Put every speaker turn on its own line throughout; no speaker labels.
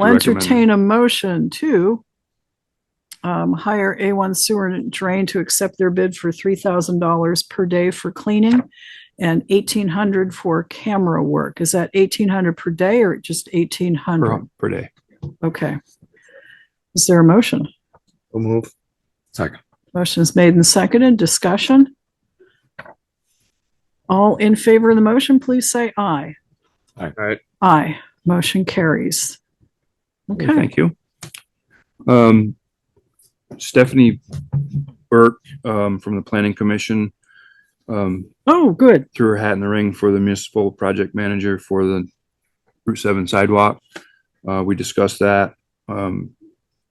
We'll
Recommend.
entertain a motion to um, hire A1 Sewer and Drain to accept their bid for three thousand dollars per day for cleaning and eighteen hundred for camera work. Is that eighteen hundred per day or just eighteen
per,
Mm-hmm.
hundred?
per day.
Okay. Is there a motion?
We'll move.
Second.
Motion is made and seconded. Discussion? All in favor of the motion, please say aye.
All right.
Aye. Motion carries. Okay,
Thank you. Um, Stephanie Burke, um, from the Planning Commission, um,
oh, good.
threw her hat in the ring for the municipal project manager for the Route Seven sidewalk. Uh, we discussed that. Um,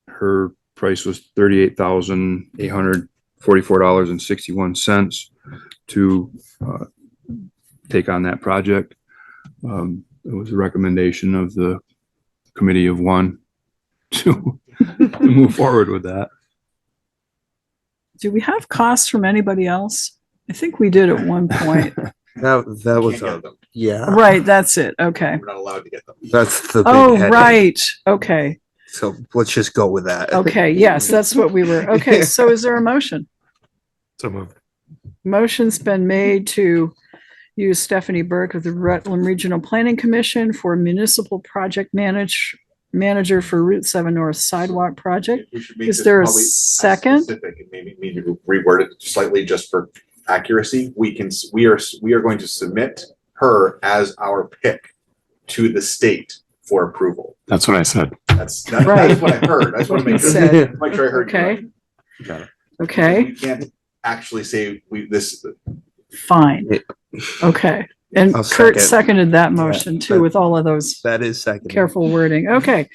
her price was thirty-eight thousand eight hundred forty-four dollars and sixty-one cents to, uh, take on that project. Um, it was a recommendation of the committee of one to to move forward with that.
Do we have costs from anybody else? I think we did at one point.
That, that was, a-
them.
yeah,
Right, that's it. Okay.
We're not allowed to get them.
that's the. big
Oh,
headache.
right. Okay.
So let's just go with that.
Okay. Yes, that's what we were. Okay. So is there a motion?
So moved.
Motion's been made to use Stephanie Burke of the Rutland Regional Planning Commission for municipal project manage, manager for Route seven North Sidewalk Project.
We should make
Is
this
there a
probably as
second?
Specific and maybe need to reword it slightly just for accuracy. We can, s- we are, s- we are going to submit her as our pick to the state for approval.
That's what I said.
That's, that-
Right.
that's what I heard. I just want to make sure,
Said,
make sure I heard. you
Okay.
right.
Got it.
Okay,
We can't actually say we, this,
fine. Okay. And
I'll
Kurt
second.
seconded that motion too with all of those
That is second.
careful wording. Okay.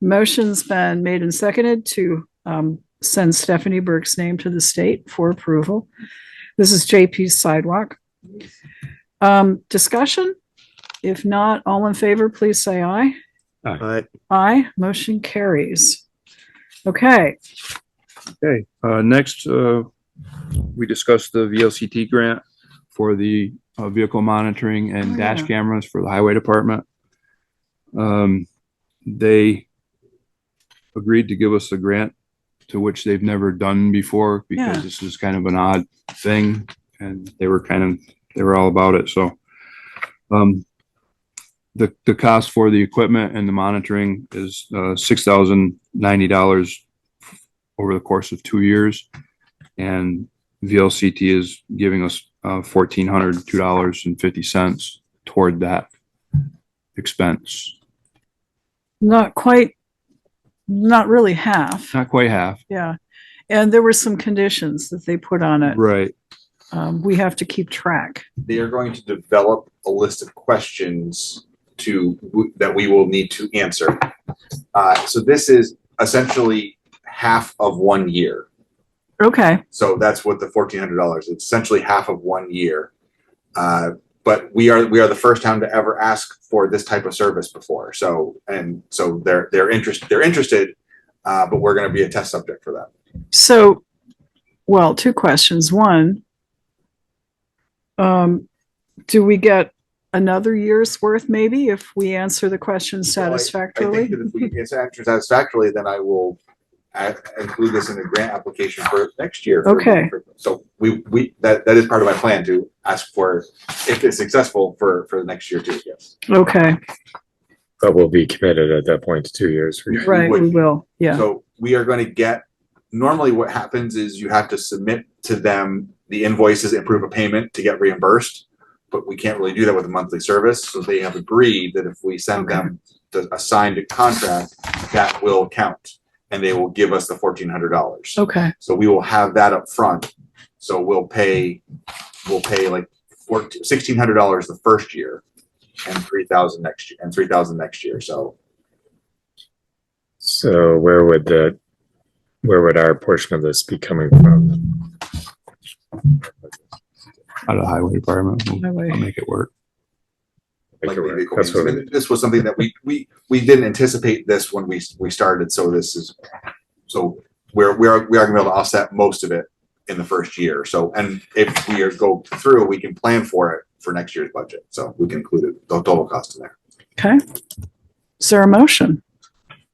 Motion's been made and seconded to um, send Stephanie Burke's name to the state for approval. This is JP's sidewalk. Um, discussion? If not, all in favor, please say aye.
All right.
Aye, motion carries. Okay,
Okay, uh, next, uh, we discussed the VLCT grant for the, uh, vehicle monitoring
Oh,
and dash
yeah.
cameras for the highway department. Um, they agreed to give us a grant to which they've never done before
Yeah.
because this is kind of an odd thing and they were kind of, they were all about it, so. Um, the, the cost for the equipment and the monitoring is, uh, six thousand ninety dollars over the course of two years. And VLCT is giving us uh fourteen hundred two dollars and fifty cents toward that expense.
not quite, not really half.
Not quite half.
Yeah. And there were some conditions that they put on it.
Right.
Um, we have to keep track.
they are going to develop a list of questions to, that we will need to answer. Uh, so this is essentially half of one year.
Okay,
So that's what the fourteen hundred dollars, it's essentially half of one year. Uh, but we are, we are the first town to ever ask for this type of service before, so, and so they're, they're interest, they're interested. Uh, but we're gonna be a test subject for that.
So, well, two questions. One, um, do we get another year's worth maybe if we answer the question
So I- I think I
satisfactorily?
think that if we get this answered satisfactorily, then I will add, include this in the grant application for next year. for-
Okay.
for- So we, we, that, that is part of my plan to ask for, if it's successful, for, for the next year too, yes.
Okay,
But we'll be committed at that point to two years.
We
right,
would.
we will. Yeah,
So we are gonna get, normally what happens is you have to submit to them the invoices and proof of payment to get reimbursed. But we can't really do that with a monthly service, so they have agreed that if we send them the a signed contract, that will count. And they will give us the fourteen hundred dollars.
okay,
So we will have that up front. So we'll pay, we'll pay like fourteen, sixteen hundred dollars the first year and three thousand next year, and three thousand next year, so.
So where would the, where would our portion of this be coming from?
Out of the highway department. We'll I'll
highway,
make it work.
Make
like
it work.
maybe
That's what we-
coincidence. This was something that we, we, we didn't anticipate this when we, we started, so this is, so we're, we're, we are gonna be able to offset most of it in the first year, so, and if we are go through, we can plan for it for next year's budget, so we can include it, the total cost in there.
okay. Is there a motion?